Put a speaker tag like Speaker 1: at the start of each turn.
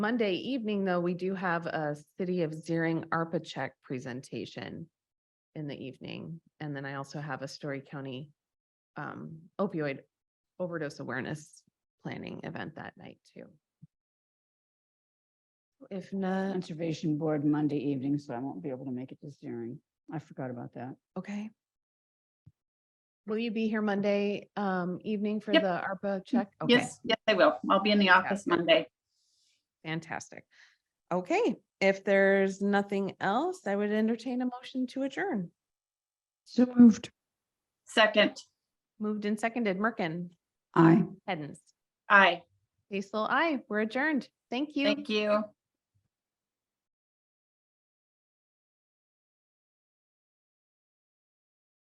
Speaker 1: Monday evening, though, we do have a City of Zering ARPA check presentation in the evening. And then I also have a Story County um, opioid overdose awareness planning event that night too. If not,
Speaker 2: Conservation Board Monday evening, so I won't be able to make it this hearing. I forgot about that.
Speaker 1: okay. Will you be here Monday um, evening for the
Speaker 3: Yep. Mm,
Speaker 1: ARPA check? Okay.
Speaker 3: Yes, yes, I will. I'll be in the office Monday.
Speaker 1: Fantastic. Okay, if there's nothing else, I would entertain a motion to adjourn.
Speaker 2: So moved.
Speaker 3: Second,
Speaker 1: Moved and seconded. Merkin,
Speaker 2: Aye.
Speaker 1: Hens,
Speaker 3: aye.
Speaker 1: Basil, I, we're adjourned. Thank you.
Speaker 3: Thank you.